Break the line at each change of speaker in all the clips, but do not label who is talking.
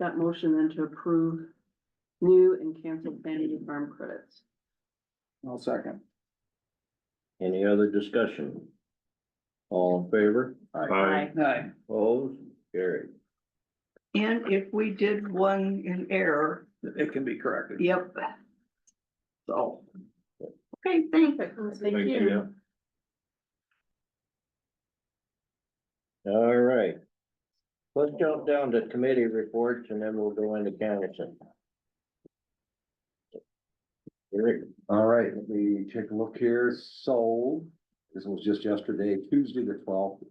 that motion then to approve new and canceled Vanity Farm credits.
I'll second.
Any other discussion? All in favor?
Aye.
Aye.
Opposed? Carried.
And if we did one in error,
It can be corrected.
yep,
So,
okay, thanks.
Thank you.
All right. Let's jump down to committee reports and then we'll go into council. Eric,
All right, let me take a look here. So, this was just yesterday, Tuesday the twelfth.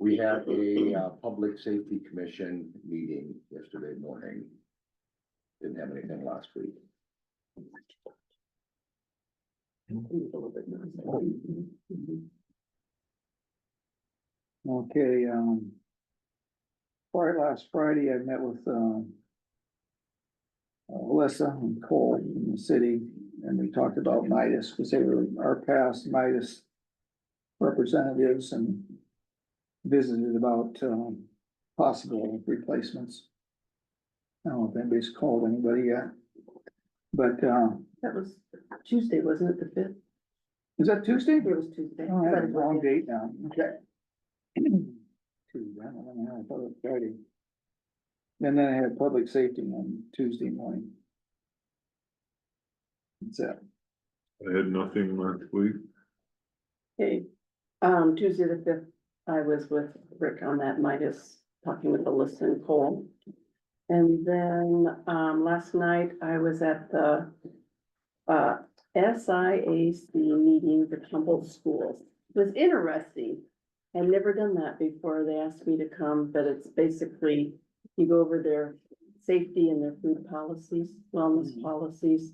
We had a uh, Public Safety Commission meeting yesterday morning. Didn't have anything last week.
okay, um. Friday, last Friday, I met with, um. uh, Alyssa and Cole in the city, and we talked about Midas, because they were our past Midas representatives and visited about, um, possible replacements. I don't know if anybody's called anybody yet, but, um,
That was Tuesday, wasn't it, the fifth?
is that Tuesday?
It was Tuesday.
Oh, I had a wrong date now, okay. Two, I don't know, I thought it was Friday. And then I had public safety on Tuesday morning. That's it.
I had nothing last week.
Okay, um, Tuesday the fifth, I was with Rick on that Midas, talking with Alyssa and Cole. And then, um, last night I was at the, uh, SIAC meeting for Trumbull Schools. It was interesting. I'd never done that before. They asked me to come, but it's basically, you go over their safety and their food policies, wellness
Mhm.
policies.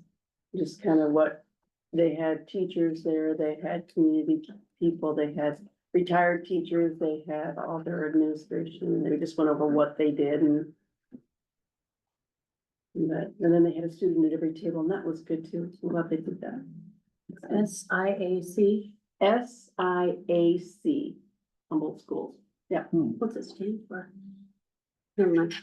Just kind of what they had teachers there, they had community people, they had retired teachers, they had all their administration, they just went over what they did and. and that- and then they had a student at every table, and that was good too, I'm glad they did that.
S I A C.
S I A C, Humboldt Schools,
What's it stand for? Never mind.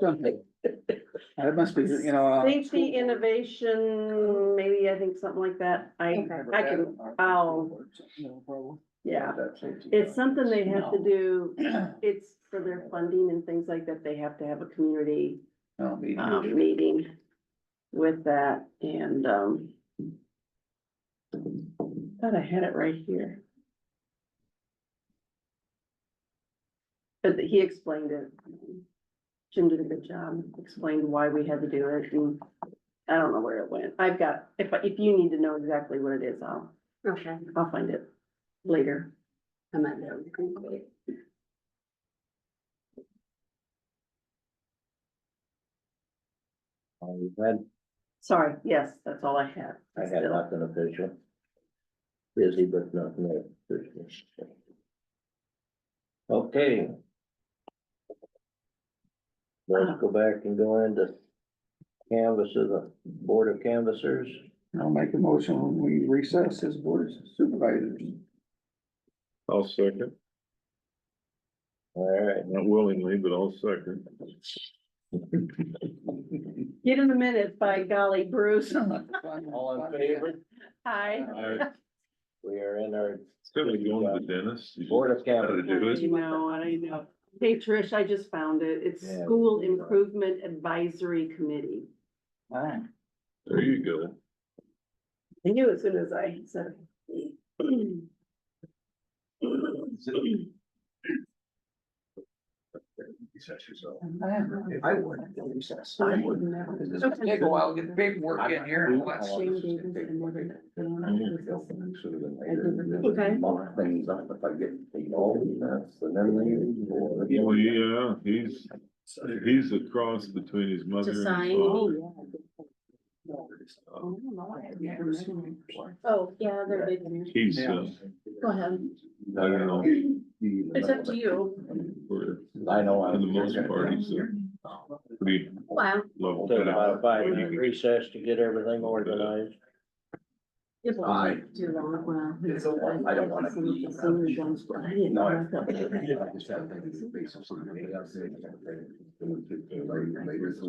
Something. It must be, you know. uh,
Safety Innovation, maybe I think something like that, I, I can- I'll-
No problem.
yeah.
That's safety.
It's something they have to do,
No,
it's for their funding and things like that, they have to have a community
me,
um, meeting with that and, um, thought I had it right here. But he explained it. Jim did a good job, explained why we had to do it and I don't know where it went. I've got, if, if you need to know exactly what it is, I'll,
Okay,
I'll find it later.
I might be able to think of it.
uh, we've had,
Sorry, yes, that's all I had.
I had nothing official. Busy, but nothing official. Okay. Let's go back and go into canvas of the Board of Canvassers.
I'll make a motion when we recess as board of supervisors.
I'll second,
All right,
not willingly, but I'll second.
Get in the minute, by golly, Bruce.
all in favor?
Hi.
I,
We are in our
instead of going to the dentist. you
Board of
just gotta
Cabinet.
do it.
I know, I know. Hey, Trish, I just found it. It's
Yeah.
School Improvement Advisory Committee.
Aye.
There you go.
I knew as soon as I said. it. Oh,
I would, recess.
I would never.
It's gonna take a while to get the paperwork in here. and all that stuff.
Shane Davis and Morgan.
Should have been later.
Okay.
Mark things up if I get, you know, that's the memory.
Well, yeah, he's, he's a cross between his mother
To
and his
sign.
father.
Oh, no, I have never met him before.
Oh, yeah, they're big. in here.
He's, uh,
Go ahead.
I don't know,
It's up to you.
for,
I know. I
for
was-
the most part, he's a pretty
Wow.
level
Take
head.
about a five minute recess to get everything organized.
It won't
Aye.
take Too long, well.
It's a one. I don't wanna
Some of the
be-
senior ones, but I didn't
No, I-
like that.
I just had to think of the basis of something. Later, later, so